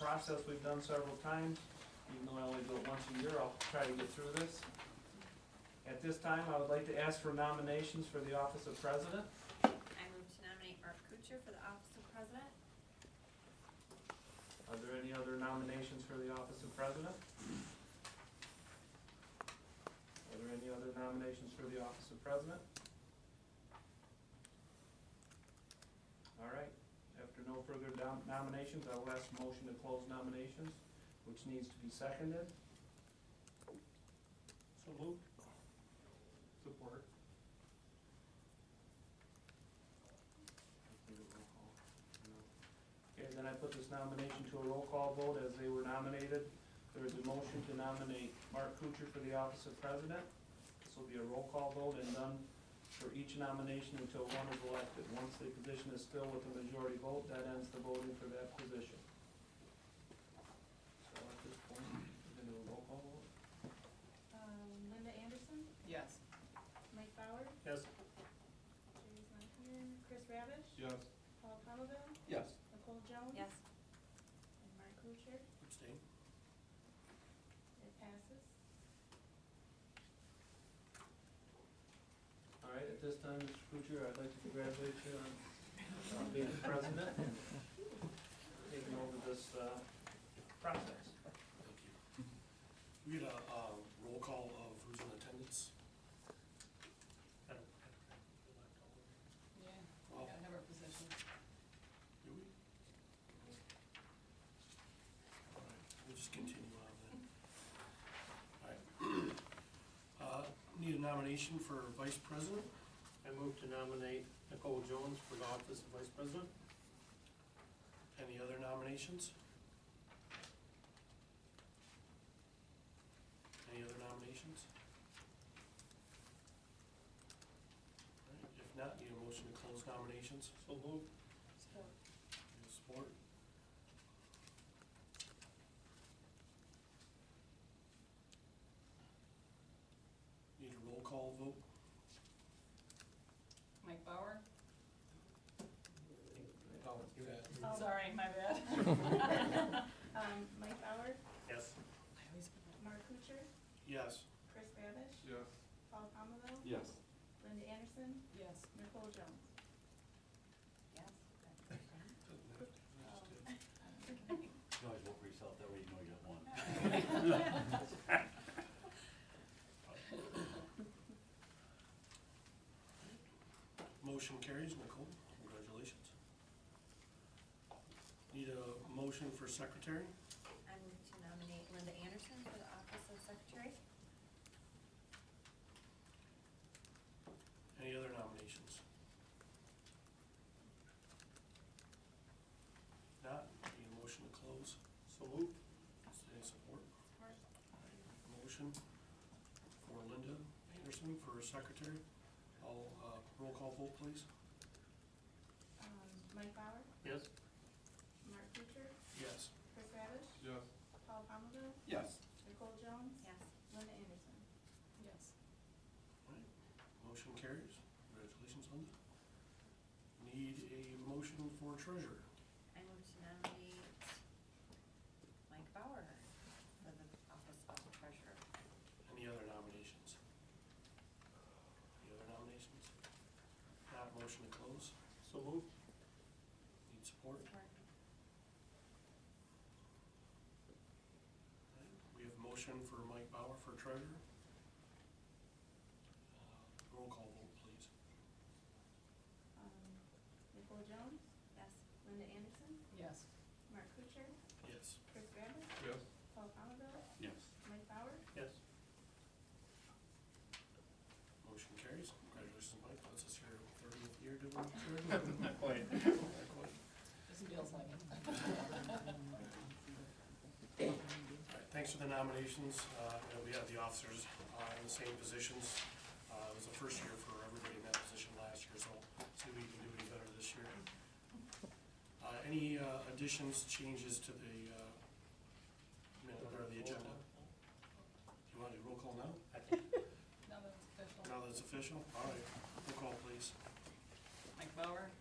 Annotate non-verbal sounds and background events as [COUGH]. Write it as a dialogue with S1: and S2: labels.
S1: process we've done several times, even though I only do it once a year, I'll try to get through this. At this time, I would like to ask for nominations for the office of president.
S2: I move to nominate Art Kuchar for the office of president.
S1: Are there any other nominations for the office of president? Are there any other nominations for the office of president? All right, after no further dom- nominations, I will ask a motion to close nominations, which needs to be seconded.
S3: So moved. Support.
S1: Okay, then I put this nomination to a roll call vote as they were nominated. There is a motion to nominate Mark Kuchar for the office of president. This will be a roll call vote and done for each nomination until one is elected. Once the position is filled with a majority vote, that ends the voting for that position. So at this point, we're gonna do a roll call vote.
S2: Um, Linda Anderson,
S4: Yes.
S2: Mike Bauer,
S1: Yes.
S2: Jerry's not here, Chris Ravish,
S3: Yes.
S2: Paul Poundeville,
S3: Yes.
S2: Nicole Jones.
S4: Yes.
S2: And Mark Kuchar,
S3: Abstain.
S2: it passes.
S1: All right, at this time, Mr. Kuchar, I'd like to congratulate you on on being president and taking over this uh, process.
S5: Thank you. We had a, uh roll call of who's in attendance. I don't- I don't have the laptop with me.
S4: Yeah, we
S5: Oh.
S4: gotta have our position.
S5: Do we? All right, we'll just continue on then. All right. Uh, Need a nomination for vice president?
S3: I move to nominate Nicole Jones for the office of vice president.
S5: Any other nominations? Any other nominations? All right, If not, need a motion to close nominations?
S3: So moved.
S4: Support.
S5: Any Support? Need a roll call vote?
S4: Mike Bauer?
S5: Oh, yeah.
S2: Oh.
S4: Sorry, my bad.
S2: Um, Mike Bauer,
S3: Yes.
S4: I always forget.
S2: Mark Kuchar,
S5: Yes.
S2: Chris Ravish,
S3: Yes.
S2: Paul Poundeville,
S3: Yes.
S2: Linda Anderson,
S4: Yes.
S2: Nicole Jones.
S4: Yes.
S6: You always vote for yourself, that way you know you got one.
S5: Motion carries, Nicole, congratulations. Need a motion for secretary?
S2: I move to nominate Linda Anderson for the office of secretary.
S5: Any other nominations? Not, need a motion to close?
S3: So moved.
S5: Any support? Motion for Linda Anderson for secretary. I'll, uh, roll call vote, please.
S2: Um, Mike Bauer,
S3: Yes.
S2: Mark Kuchar,
S5: Yes.
S2: Chris Ravish,
S3: Yes.
S2: Paul Poundeville,
S5: Yes.
S2: Nicole Jones. Yes. Linda Anderson.
S4: Yes.
S5: Motion carries. Congratulations, Linda. Need a motion for treasurer.
S2: I move to nominate Mike Bauer for the office of treasurer.
S5: Any other nominations? Any other nominations? Not motion to close.
S3: So moved.
S5: Need support. We have motion for Mike Bauer for treasurer. Uh, Roll call vote, please.
S2: Um, Nicole Jones? Yes. Linda Anderson?
S4: Yes.
S2: Mark Kuchar?
S5: Yes.
S2: Chris Rabbit?
S3: Yes.
S2: Paul Poundeville?
S6: Yes.
S2: Mike Bauer?
S3: Yes.
S5: Motion carries. Congratulations, Mike. This is your thirtieth year
S3: [LAUGHS]
S5: doing treasurer.
S3: Not quite.
S4: This feels like it.
S6: [LAUGHS]
S5: All right, Thanks for the nominations. Uh, you know, We have the officers uh, in the same positions. Uh, It was the first year for everybody in that position last year, so see if we can do any better this year. Uh, Any uh, additions, changes to the uh, minute or the agenda? You want to do roll call now?
S4: Now that it's official.
S5: Now that it's official? All right, roll call, please.
S4: Mike Bauer?